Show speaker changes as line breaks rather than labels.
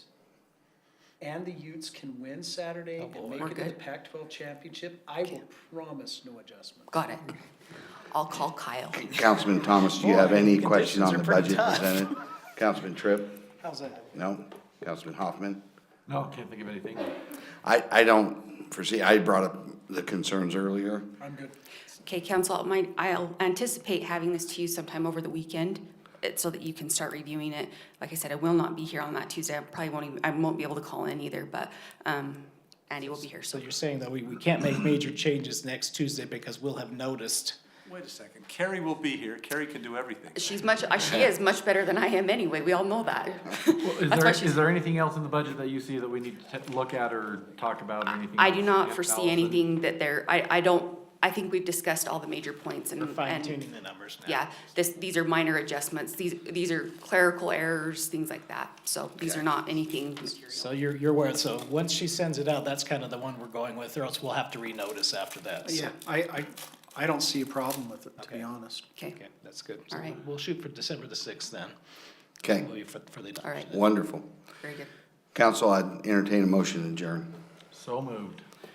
and the Utes can win Saturday
Oh,
and
boy.
make
We're
it to the
good.
Pac-12 championship, I will promise no adjustment.
Got it. I'll call Kyle.
Councilman Thomas, do you have
Boy,
any
the
question on the
conditions are pretty
budget
tough.
presented? Councilman Tripp?
How's that?
No? Councilman Hoffman?
No, can't think of anything.
I, I don't foresee, I brought up the concerns earlier.
I'm good.
Okay, council, I might, I'll anticipate having this to you sometime over the weekend, eh, so that you can start reviewing it. Like I said, I will not be here on that Tuesday. I probably won't even, I won't be able to call in either, but, um, Andy will be here,
So
so.
you're saying that we, we can't make major changes next Tuesday because we'll have noticed.
Wait a second, Carrie will be here, Carrie can do everything.
She's much, uh, she is much better than I am anyway. We all know that.
Is
That's
there,
why she's-
is there anything else in the budget that you see that we need to t- look at or talk about or anything?
I
else
do
that
not
gets
foresee
balanced?
anything that there, I, I don't, I think we've discussed all the major points and.
We're fine
and-
tuning the numbers now.
Yeah, this, these are minor adjustments. These, these are clerical errors, things like that. So these are not anything material.
So you're, you're aware, so once she sends it out, that's kind of the one we're going with, or else we'll have to renotice after that. so-
Yeah, I, I, I don't see a problem with it, to be
Okay.
honest.
Okay,
Okay, that's good.
All right.
So We'll shoot for December the sixth then.
Okay,
We'll be for, for the
all
adoption.
right,
wonderful.
very good.
Council, I'd entertain a motion to adjourn.
So moved.